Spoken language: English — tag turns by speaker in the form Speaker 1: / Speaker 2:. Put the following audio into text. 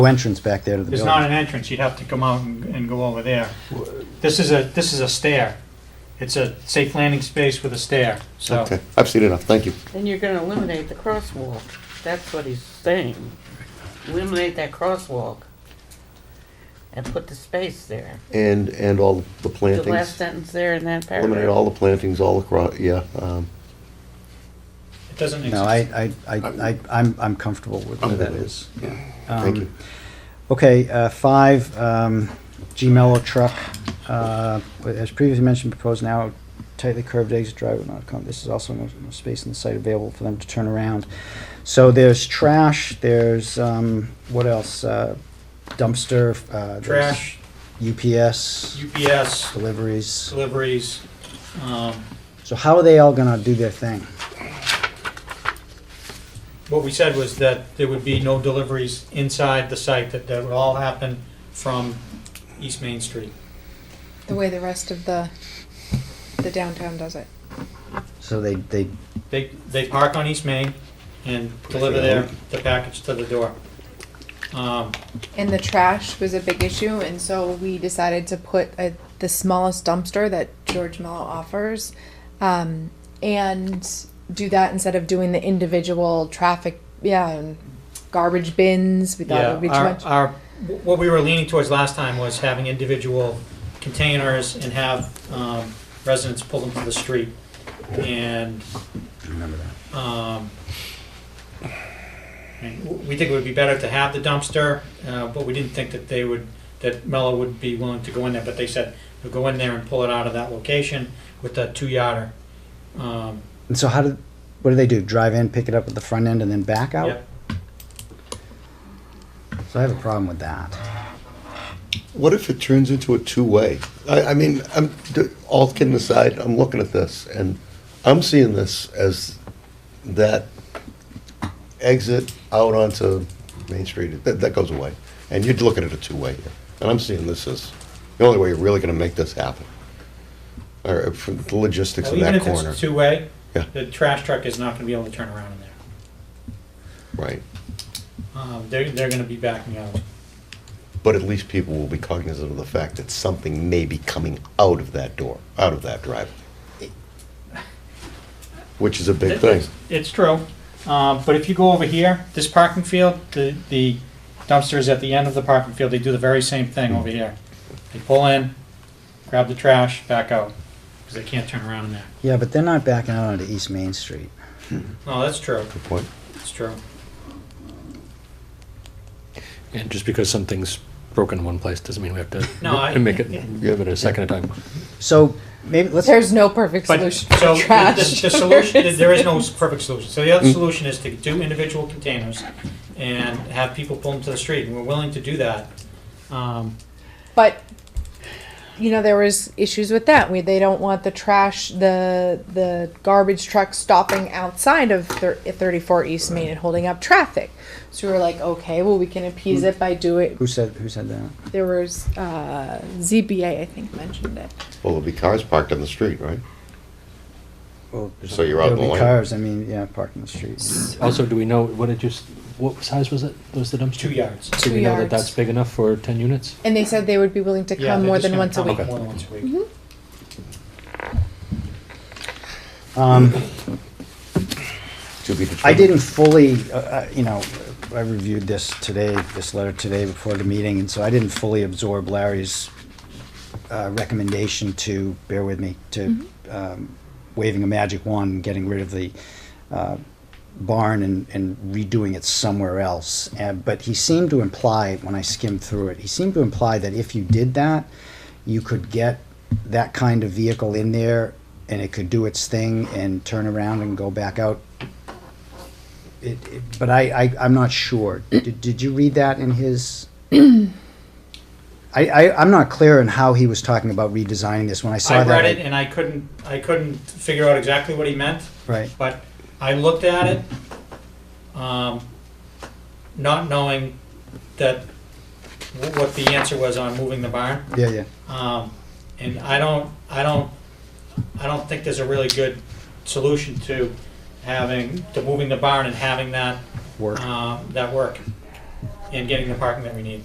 Speaker 1: entrance back there to the
Speaker 2: There's
Speaker 1: building.
Speaker 2: not an entrance, you'd have to come out and, and go over there. This is a, this is a stair. It's a safe landing space with a stair, so.
Speaker 3: Okay, I've seen enough, thank you.
Speaker 4: Then you're gonna eliminate the crosswalk. That's what he's saying. Eliminate that crosswalk and put the space there.
Speaker 3: And, and all the
Speaker 4: The last
Speaker 3: plantings,
Speaker 4: sentence there in that paragraph.
Speaker 3: eliminate all the plantings all across, yeah. um,
Speaker 2: It doesn't make
Speaker 1: No, I,
Speaker 2: sense.
Speaker 1: I, I, I, I'm, I'm comfortable with where that is. Yeah.
Speaker 3: Thank
Speaker 1: Um,
Speaker 3: you.
Speaker 1: Okay, uh, five, um, G Mello truck, uh, as previously mentioned, proposed now tightly curved exit drive will not come. This is also no, no space in the site available for them to turn around. So there's trash, there's, um, what else? Uh, dumpster, uh. there's
Speaker 2: Trash,
Speaker 1: UPS,
Speaker 2: UPS,
Speaker 1: deliveries.
Speaker 2: deliveries, um,
Speaker 1: So how are they all gonna do their thing?
Speaker 2: What we said was that there would be no deliveries inside the site, that that would all happen from East Main Street.
Speaker 5: the way the rest of the the downtown does it.
Speaker 1: So they, they,
Speaker 2: They, they park on East Main and deliver their, the package to the door. Um,
Speaker 5: And the trash was a big issue, and so we decided to put a, the smallest dumpster that George Mello offers, um, and do that instead of doing the individual traffic, yeah, and garbage bins. We thought it
Speaker 2: Yeah,
Speaker 5: would be too
Speaker 2: our-
Speaker 5: much.
Speaker 2: our- what we were leaning towards last time was having individual containers and have um, residents pull them to the street. And. um, Remember that. We think it would be better to have the dumpster, uh, but we didn't think that they would, that Mello would be willing to go in there, but they said, they'll go in there and pull it out of that location with the two yarder. Um,
Speaker 1: and so how did, what do they do? Drive in, pick it up at the front end and then back out?
Speaker 2: yeah.
Speaker 1: So I have a problem with that.
Speaker 3: What if it turns into a two-way? I, I mean, I'm, d- all kidding aside, I'm looking at this, and I'm seeing this as that exit out onto Main Street, that, that goes away. And you're looking at a two-way here, and I'm seeing this as the only way you're really gonna make this happen. Or uh, for the logistics
Speaker 2: Well,
Speaker 3: of
Speaker 2: Even
Speaker 3: that
Speaker 2: if
Speaker 3: corner,
Speaker 2: it's two-way,
Speaker 3: Yeah.
Speaker 2: the trash truck is not gonna be able to turn around in there.
Speaker 3: right?
Speaker 2: Um, they're, they're gonna be backing out.
Speaker 3: But at least people will be cognizant of the fact that something may be coming out of that door, out of that driveway. Which is a big thing.
Speaker 2: It's true, um, but if you go over here, this parking field, the, the dumpster is at the end of the parking field, they do the very same thing over here. They pull in, grab the trash, back out, cause they can't turn around in there.
Speaker 1: Yeah, but they're not backing out onto East Main Street.
Speaker 2: No, Oh, that's true,
Speaker 3: Good point.
Speaker 2: that's true.
Speaker 6: And just because something's broken in one place doesn't mean we have to
Speaker 2: No, I-
Speaker 6: make it, give it a second time.
Speaker 1: So maybe let's.
Speaker 5: There's no perfect
Speaker 2: But,
Speaker 5: solution
Speaker 2: so,
Speaker 5: for
Speaker 2: the- the,
Speaker 5: trash.
Speaker 2: the solution, there is no perfect solution, so the
Speaker 3: Mm.
Speaker 2: other solution is to do individual containers and have people pull them to the street, and we're willing to do that. Um,
Speaker 5: But you know there was issues with that. We they don't want the trash, the the garbage truck stopping outside of thir- 34 East Main and holding up traffic. So we were like, okay, well we can appease it by doing.
Speaker 1: Who said who said that?
Speaker 5: There was uh, ZBA, I think, mentioned it.
Speaker 3: Well, there'll be cars parked on the street, right?
Speaker 1: Well,
Speaker 3: So you're out in the
Speaker 1: There'll be
Speaker 3: lane.
Speaker 1: cars. I mean, yeah, parked in the street.
Speaker 6: Also, do we know what it just, what size was it? Was the dumpster?
Speaker 2: two yards.
Speaker 6: Do
Speaker 5: Two
Speaker 6: we know that
Speaker 5: yards.
Speaker 6: that's big enough for 10 units?
Speaker 5: And they said they would be willing to come
Speaker 2: Yeah, they're
Speaker 5: more
Speaker 2: just
Speaker 5: than
Speaker 2: gonna
Speaker 5: once a
Speaker 2: come
Speaker 5: week. Mm-hmm.
Speaker 6: Okay.
Speaker 2: More than once a week.
Speaker 1: Um,
Speaker 3: To be
Speaker 1: I
Speaker 3: determined.
Speaker 1: didn't fully, uh, uh, you know, I reviewed this today, this letter today before the meeting, and so I didn't fully absorb Larry's uh, recommendation to, bear with me, to um, waving a magic wand, and getting rid of the uh, barn and and redoing it somewhere else. And- But he seemed to imply, when I skimmed through it, he seemed to imply that if you did that, you could get that kind of vehicle in there and it could do its thing and turn around and go back out it, it- but I, I, I'm not sure. Did, did you read that in his? I, I, I'm not clear on how he was talking about redesigning this when I saw
Speaker 2: I
Speaker 1: that.
Speaker 2: read it and I couldn't, I couldn't figure out exactly what he meant,
Speaker 1: Right.
Speaker 2: but I looked at it, um, not knowing that, wh- what the answer was on moving the barn.
Speaker 1: Yeah, yeah.
Speaker 2: Um, and I don't, I don't, I don't think there's a really good solution to having, to moving the barn and having that,
Speaker 1: Work.
Speaker 2: um, that work. and getting the parking that we need.